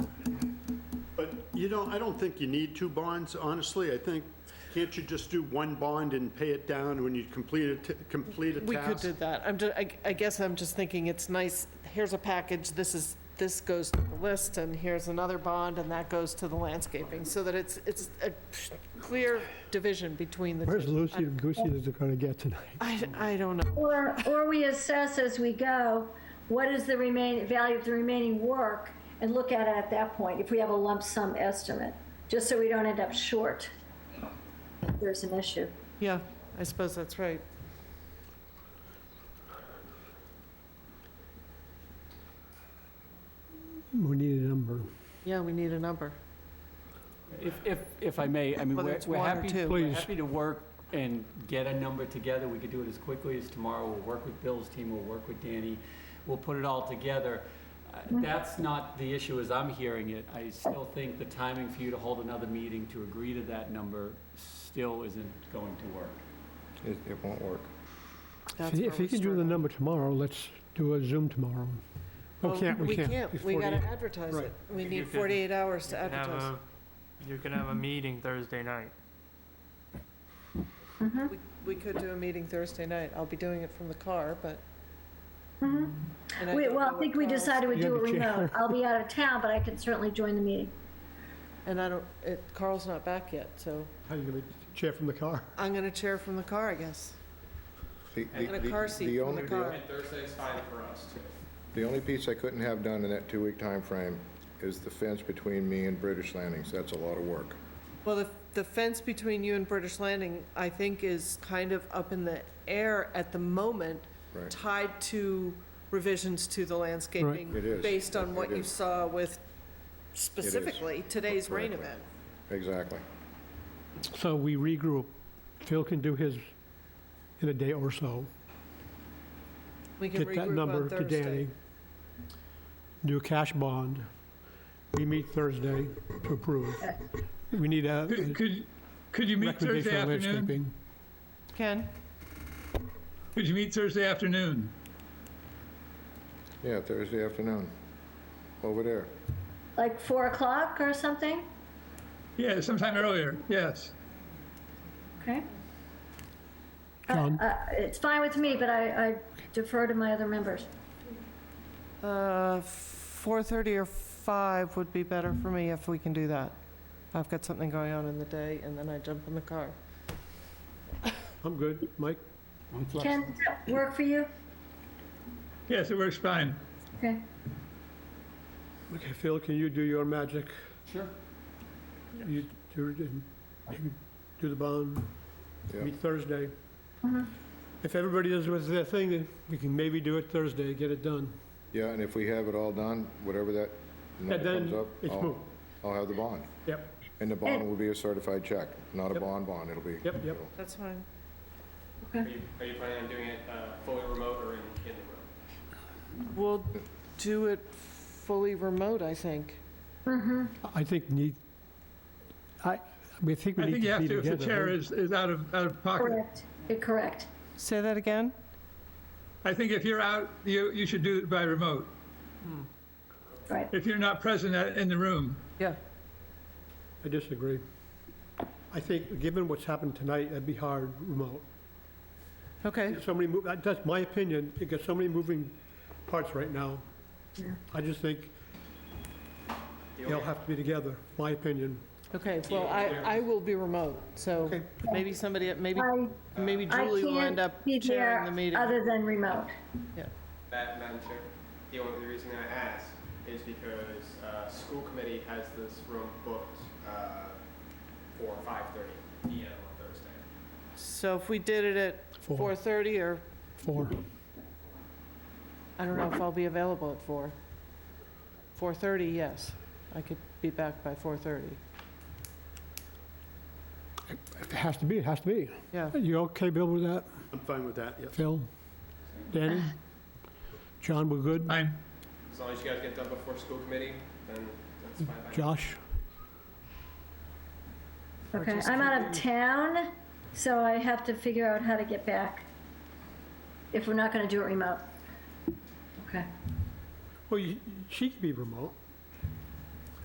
don't, I don't think you need two bonds, honestly. I think, can't you just do one bond and pay it down when you complete a, t- complete a task? We could do that. I'm just, I, I guess I'm just thinking it's nice, here's a package, this is, this goes to the list, and here's another bond, and that goes to the landscaping, so that it's, it's a clear division between the two. Where's Lucy and Goosey Oh. that they're gonna get tonight? I, I don't know. Or, or we assess as we go, what is the remaining, value of the remaining work, and look at it at that point, if we have a lump sum estimate, just so we don't end up short. if There's an issue. Yeah, I suppose that's right. We need a number. Yeah, we need a number. If, if, if I may, I mean, Whether we're it's we're one or happy, two. we're Please. happy to work and get a number together. We could do it as quickly as tomorrow. We'll work with Bill's team, we'll work with Danny, we'll put it all together. Uh, That's not the issue as I'm hearing it. I still think the timing for you to hold another meeting to agree to that number still isn't going to work. It, it won't work. That's If you- where If you we're can do the struggling. number tomorrow, let's do a Zoom tomorrow. Oh, Well, can't, we can't. It's We 48. gotta advertise Right. it. We You need can- 48 hours to You can have advertise. a- You can have a meeting Thursday night. We- We could do a meeting Thursday night. I'll be doing it from the car, but. And I Mm-hmm. We- don't know Well, I what think we Carl's- decided we You do have a a chair. remote. I'll be out of town, but I can certainly join the meeting. And I don't, it- Carl's not back yet, so How you gonna chair from the car? I'm gonna chair from the car, I guess. The- And the- a the- car seat the from only- the car. Thursday's fine for us. The only piece I couldn't have done in that two-week time frame is the fence between me and British Landings. That's a lot of work. Well, the, the fence between you and British Landing, I think, is kind of up in the air at the moment, Right. tied to revisions to the landscaping. It is. Based on what It you is. saw with specifically today's rain Correctly. event. Exactly. So we regroup. Phil can do his in a day or so. We can Get that regroup on number to Thursday. Danny. Do a cash bond. We meet Thursday to approve. We need a Could- a Could, could you meet Uh, Thursday recommendation on afternoon? landscaping. Ken? Could you meet Thursday afternoon? Yeah, Thursday afternoon, over there. Like 4 o'clock or something? Yeah, sometime earlier, yes. Okay? John? Uh, It's fine with me, but I I defer to my other members. Uh, 4:30 or 5 would be better for me if we can do that. I've got something going on in the day, and then I jump in the car. I'm good. Mike? Ken, does that work for you? Yes, it works fine. Okay. Okay, Phil, can you do your magic? Sure. You do, it in- you can do the bond, Yeah. meet Thursday. Mm-hmm. If everybody is with their thing, then we can maybe do it Thursday, get it done. Yeah, and if we have it all done, whatever that And number comes then up, it's Oh. I'll, moved. I'll have the bond. Yep, And the bond will be a certified check, not a Yep. bond bond, it'll be. Yep, yep. That's fine. Are you, are you planning on doing it uh, fully remote or in, in the room? We'll do it fully remote, I think. I think need, I, we think we I need think you to have be to if the chair together. is, is out of, out of pocket. Correct. Yeah, Correct. Say that again? I think if you're out, you, you should do it by remote, Hmm. Right. if you're not present at- in the room. Yeah. I disagree. I think, given what's happened tonight, that'd be hard remote. Okay, So many, mov- that- that's my opinion, because so many moving parts right now. I just think they'll have to be together, my opinion. okay, well, I, I will be remote, so Okay. maybe somebody, maybe, I maybe I Julie will end can't up be chairing there the meeting. other than remote. That, Madam Chair, the only reason I ask is because uh, school committee has this room booked uh, for 5:30 PM on Thursday. So if we did it at Four. 4:30 or, Four. I don't know if I'll be available at 4. 4:30, yes. I could be back by 4:30. It has to be, it has to be. Yeah. You okay, Bill, with that? I'm fine with that, yes. Phil? Danny? John, we're good? Fine. As long as you guys get done before school committee, then that's fine. by me. Josh? Okay, I'm out of town, so I have to figure out how to get back. If we're not gonna do it remote. Okay. Well, you- she could be remote.